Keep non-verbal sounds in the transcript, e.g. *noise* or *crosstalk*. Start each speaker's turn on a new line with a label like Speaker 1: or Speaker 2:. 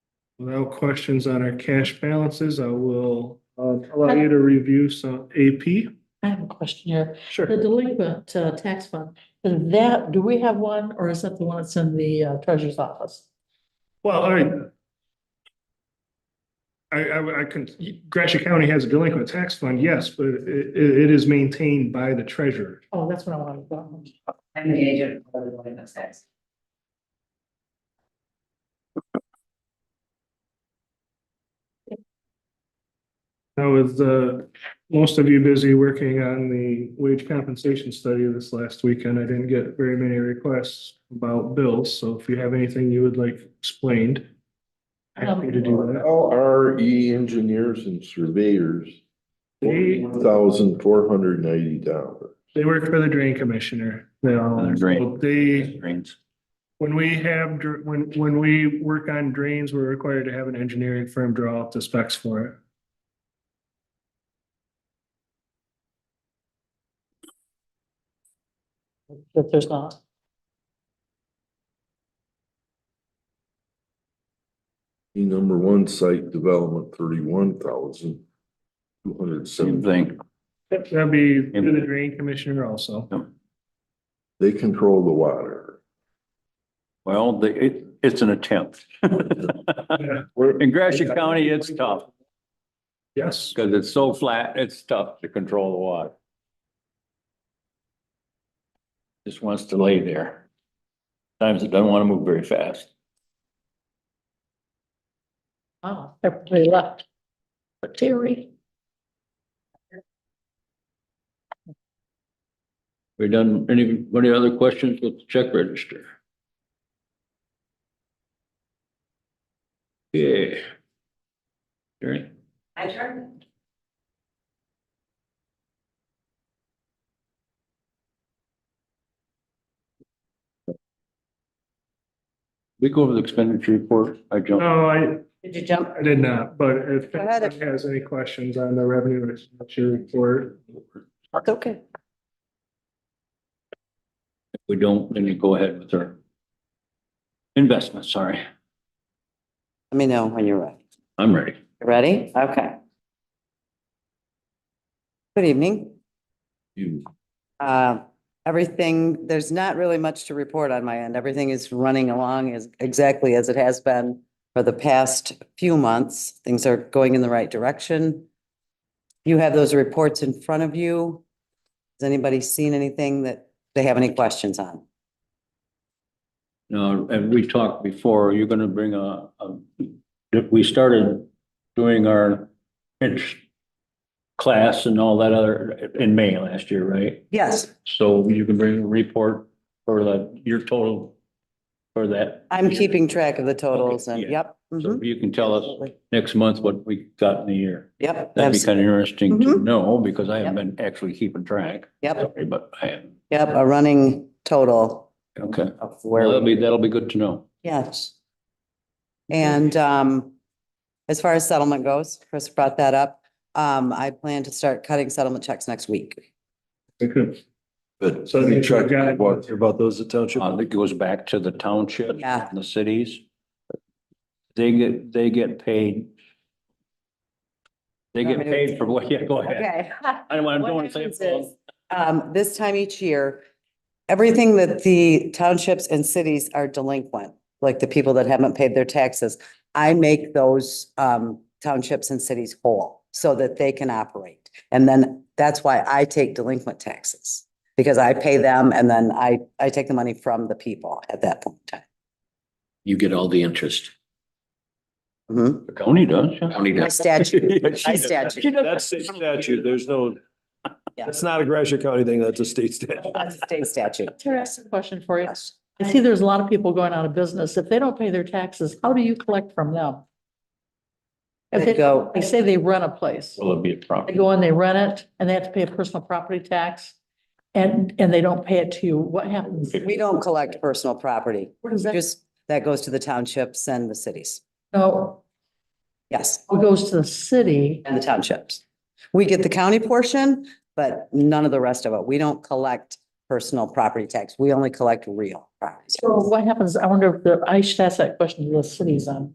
Speaker 1: No questions on our cash balances. I will uh, allow you to review some AP.
Speaker 2: I have a question here. The
Speaker 1: Sure.
Speaker 2: delinquent uh, tax fund, is that, do we have one or is that the one that's in the uh, treasurer's office?
Speaker 1: Well, all right. I, I, I can, Gratiot County has a delinquent tax fund, yes, but it, it it is maintained by the treasurer.
Speaker 2: Oh, that's what I wanted to know.
Speaker 3: I'm the agent for the one that says.
Speaker 1: Now, with uh, most of you busy working on the wage compensation study this last weekend, I didn't get very many requests about bills, so if you have anything you would like explained, happy to do that.
Speaker 4: How are E engineers and surveyors?
Speaker 1: They-
Speaker 4: Thousand four hundred ninety dollars.
Speaker 1: They work for the drain commissioner. They all,
Speaker 5: Uh, drain.
Speaker 1: they,
Speaker 5: Drains.
Speaker 1: when we have, dr- when, when we work on drains, we're required to have an engineering firm draw up the specs for it.
Speaker 2: If there's not.
Speaker 4: E number one site development thirty-one thousand two hundred
Speaker 5: Same
Speaker 4: seventy.
Speaker 5: thing.
Speaker 1: That'd be through the drain commissioner also.
Speaker 4: They control the water.
Speaker 5: Well, they, it, it's an attempt. *laughs*
Speaker 1: Yeah.
Speaker 5: In Gratiot County, it's tough
Speaker 1: Yes.
Speaker 5: because it's so flat, it's tough to control the water. Just wants to lay there. Times it doesn't want to move very fast.
Speaker 2: Oh, everybody left. But Terry.
Speaker 5: We done, any, any other questions with the check register? Yeah. Jerry?
Speaker 3: I turned.
Speaker 5: We go over the expenditure report, I jumped.
Speaker 1: No, I,
Speaker 3: Did you jump?
Speaker 1: I did not, but if
Speaker 3: Go ahead.
Speaker 1: anyone has any questions on the revenue or expenditure report,
Speaker 3: That's okay.
Speaker 5: If we don't, then you go ahead with our investment, sorry,
Speaker 3: Let me know when you're ready.
Speaker 5: I'm ready.
Speaker 3: You Ready? Okay. Good evening.
Speaker 4: You,
Speaker 3: Uh, Everything, there's not really much to report on my end. Everything is running along as exactly as it has been for the past few months. Things are going in the right direction. You have those reports in front of you. Has anybody seen anything that they have any questions on?
Speaker 5: Now, and we talked before, you're gonna bring a, a, we started doing our int- class and all that other, in May last year, right?
Speaker 3: Yes,
Speaker 5: So you can bring a report for the, your total for that.
Speaker 3: I'm keeping track of the totals and,
Speaker 5: yeah.
Speaker 3: yep.
Speaker 5: So
Speaker 3: mhm,
Speaker 5: you can tell us
Speaker 3: absolutely.
Speaker 5: next month what we got in the year.
Speaker 3: Yep,
Speaker 5: That'd be
Speaker 3: abs-
Speaker 5: kind of interesting to
Speaker 3: Mhm.
Speaker 5: know, because I haven't been actually keeping track,
Speaker 3: yep,
Speaker 5: Sorry, but I am,
Speaker 3: yep, a running total
Speaker 5: okay.
Speaker 3: of
Speaker 5: Well,
Speaker 3: where.
Speaker 5: that'll
Speaker 3: we-
Speaker 5: be, that'll be good to know.
Speaker 3: Yes. And um, as far as settlement goes, Chris brought that up. Um, I plan to start cutting settlement checks next week.
Speaker 1: I could,
Speaker 4: but
Speaker 1: So they-
Speaker 4: you check
Speaker 1: got-
Speaker 4: what,
Speaker 6: About those at township.
Speaker 5: Uh, that goes back to the township.
Speaker 3: Yeah.
Speaker 5: and The cities. They get, they get paid. They get paid for what, yeah, go ahead. I don't want, I don't want to say. it wrong.
Speaker 3: Um, this time each year, everything that the townships and cities are delinquent, like the people that haven't paid their taxes, I make those um townships and cities whole so that they can operate. And then that's why I take delinquent taxes, because I pay them and then I I take the money from the people at that point in time.
Speaker 7: You get all the interest.
Speaker 3: Mhm.
Speaker 5: The County does, yeah.
Speaker 7: County
Speaker 3: By
Speaker 7: does. *laughs*
Speaker 3: statute, by
Speaker 5: She
Speaker 3: statute.
Speaker 5: does.
Speaker 6: That's state statute. There's no,
Speaker 3: Yeah.
Speaker 6: that's not a Gratiot County thing. That's a state statute.
Speaker 3: That's a state statute.
Speaker 2: Terry, I have a question for you.
Speaker 3: Yes.
Speaker 2: I see there's a lot of people going out of business. If they don't pay their taxes, how do you collect from them? If
Speaker 3: They
Speaker 2: they,
Speaker 3: go,
Speaker 2: they say they rent a place,
Speaker 5: Will it be a
Speaker 2: they
Speaker 5: problem?
Speaker 2: go and they rent it and they have to pay a personal property tax and, and they don't pay it to you, what happens?
Speaker 3: we don't collect personal property.
Speaker 2: Where does that
Speaker 3: Just, that goes to the townships and the cities.
Speaker 2: go?
Speaker 3: Yes,
Speaker 2: It goes to the city.
Speaker 3: and the townships. We get the county portion, but none of the rest of it. We don't collect personal property tax. We only collect real property. tax.
Speaker 2: So what happens? I wonder if the, I should ask that question to the cities on